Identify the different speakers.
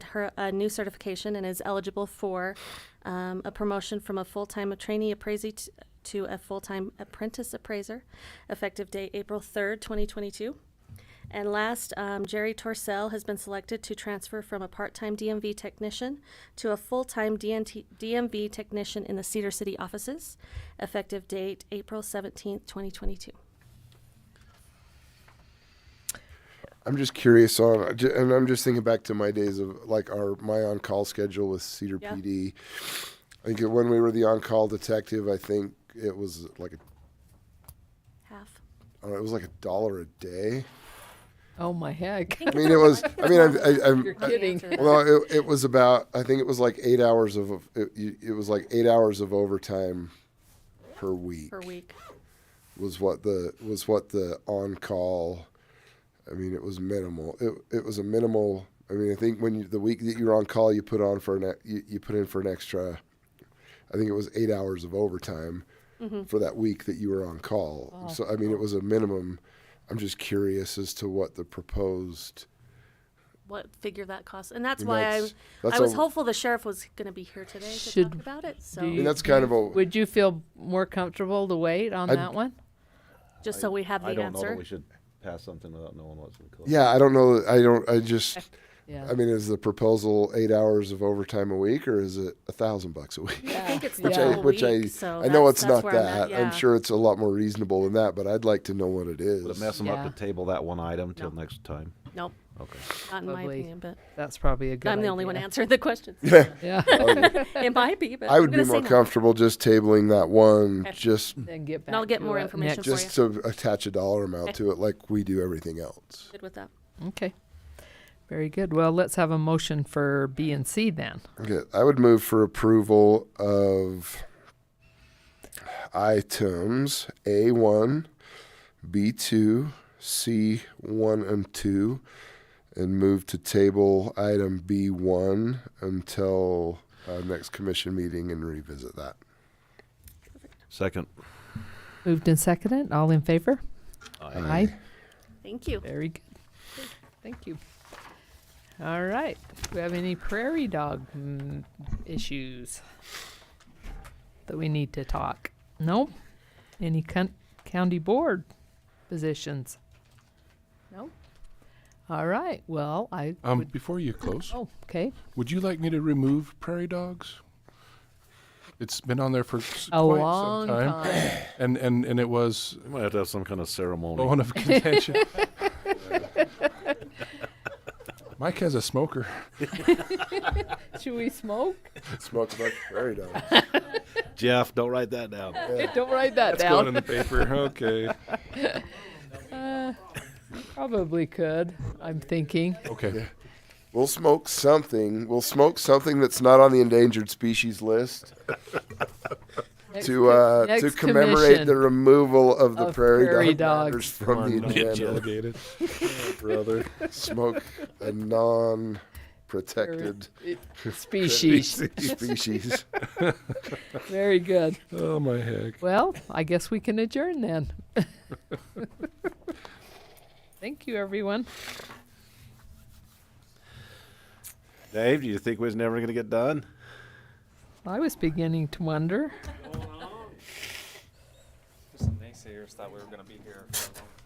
Speaker 1: her a new certification and is eligible for um, a promotion from a full-time trainee appraisee t- to a full-time apprentice appraiser, effective date April 3rd, 2022. And last, um, Jerry Torcell has been selected to transfer from a part-time DMV technician to a full-time DNT, DMV technician in the Cedar City offices, effective date April 17th, 2022.
Speaker 2: I'm just curious on, I ju- and I'm just thinking back to my days of like our my on call schedule with Cedar
Speaker 1: Yeah.
Speaker 2: PD. I think when we were the on call detective, I think it was like a,
Speaker 1: Half.
Speaker 2: uh, it was like a dollar a day.
Speaker 3: Oh my heck!
Speaker 2: I mean, it was. I mean, I, I, I'm.
Speaker 3: You're
Speaker 2: I-
Speaker 3: kidding.
Speaker 2: well, it, it was about. I think it was like eight hours of. It, it was like eight hours of overtime per week.
Speaker 1: per week.
Speaker 2: was what the was what the on call. I mean, it was minimal. It it was a minimal. I mean, I think when you, the week that you were on call, you put on for an e- you, you put in for an extra. I think it was eight hours of overtime for that week that you were on call. So I mean, it was a minimum. I'm just curious as to what the proposed.
Speaker 1: What figure that costs, and that's
Speaker 2: And
Speaker 1: why
Speaker 2: that's-
Speaker 1: I,
Speaker 2: that's
Speaker 1: I was
Speaker 2: a-
Speaker 1: hopeful the sheriff was going to be here today to
Speaker 3: Should
Speaker 1: talk about it. So
Speaker 3: be-
Speaker 2: I mean, that's kind of a.
Speaker 3: Would you feel more comfortable to wait on
Speaker 2: I'd-
Speaker 3: that one?
Speaker 1: just so we have the
Speaker 4: I don't know
Speaker 1: answer,
Speaker 4: that we should pass something without knowing what's in the code.
Speaker 2: Yeah, I don't know. I don't. I just.
Speaker 3: Yeah.
Speaker 2: I mean, is the proposal eight hours of overtime a week, or is it a thousand bucks a week?
Speaker 1: I think it's the
Speaker 2: which
Speaker 1: full
Speaker 2: I, which
Speaker 1: week.
Speaker 2: I,
Speaker 1: so
Speaker 2: I know
Speaker 1: that's-
Speaker 2: it's
Speaker 1: that's
Speaker 2: not
Speaker 1: where I'm
Speaker 2: that.
Speaker 1: at, yeah.
Speaker 2: I'm sure it's a lot more reasonable than that, but I'd like to know what it is.
Speaker 4: Would it mess them
Speaker 3: Yeah.
Speaker 4: up to table that one item till
Speaker 1: No.
Speaker 4: next time?
Speaker 1: Nope,
Speaker 4: Okay.
Speaker 1: not in my
Speaker 3: Probably.
Speaker 1: opinion, but
Speaker 3: That's probably a good.
Speaker 1: I'm the only one
Speaker 3: idea.
Speaker 1: answering the questions.
Speaker 3: Yeah.
Speaker 2: Oh,
Speaker 1: it might be, but
Speaker 2: I would
Speaker 1: I'm
Speaker 2: be
Speaker 1: gonna say
Speaker 2: more
Speaker 1: no.
Speaker 2: comfortable just tabling that one,
Speaker 1: Okay.
Speaker 2: just
Speaker 3: then get back.
Speaker 1: I'll get
Speaker 3: to
Speaker 1: more
Speaker 3: it
Speaker 1: information
Speaker 3: next-
Speaker 1: for
Speaker 2: just to attach a dollar amount to it, like we do everything else.
Speaker 1: Good with that.
Speaker 3: Okay. Very good. Well, let's have a motion for B and C then.
Speaker 2: Okay, I would move for approval of items A one, B two, C one and two, and move to table item B one until uh, next commission meeting and revisit that.
Speaker 4: Second.
Speaker 3: Moved and seconded. All in favor? Aye.
Speaker 1: Thank you.
Speaker 3: Very good. Thank you. All right. Do we have any prairie dog mm, issues that we need to talk? No. Any coun- county board positions? No. All right. Well, I.
Speaker 5: Um,
Speaker 3: would,
Speaker 5: before you close,
Speaker 3: oh, okay.
Speaker 5: would you like me to remove prairie dogs? It's been on there for s-
Speaker 3: A
Speaker 5: quite
Speaker 3: long
Speaker 5: some time,
Speaker 3: time.
Speaker 5: and and and it was
Speaker 4: We might have to have some kind of ceremony.
Speaker 5: bone of contention. Mike has a smoker.
Speaker 3: Should we smoke?
Speaker 2: Smoked like prairie dog.
Speaker 4: Jeff, don't write that down.
Speaker 3: Don't write that
Speaker 5: It's going in
Speaker 3: down.
Speaker 5: the paper. Okay.
Speaker 3: Uh, Probably could. I'm thinking.
Speaker 5: Okay.
Speaker 2: We'll smoke something. We'll smoke something that's not on the endangered species list to uh, to
Speaker 3: next
Speaker 2: commemorate the
Speaker 3: commission
Speaker 2: removal of the
Speaker 3: of
Speaker 2: prairie,
Speaker 3: prairie
Speaker 2: dog matters
Speaker 3: dogs.
Speaker 2: from the agenda.
Speaker 5: Delegated.
Speaker 2: Brother, smoke a non-protected
Speaker 3: species.
Speaker 2: species.
Speaker 3: Very good.
Speaker 5: Oh my heck.
Speaker 3: Well, I guess we can adjourn then. Thank you, everyone.
Speaker 4: Dave, do you think we was never going to get done?
Speaker 3: I was beginning to wonder.
Speaker 6: Some naysayers thought we were going to be here for a long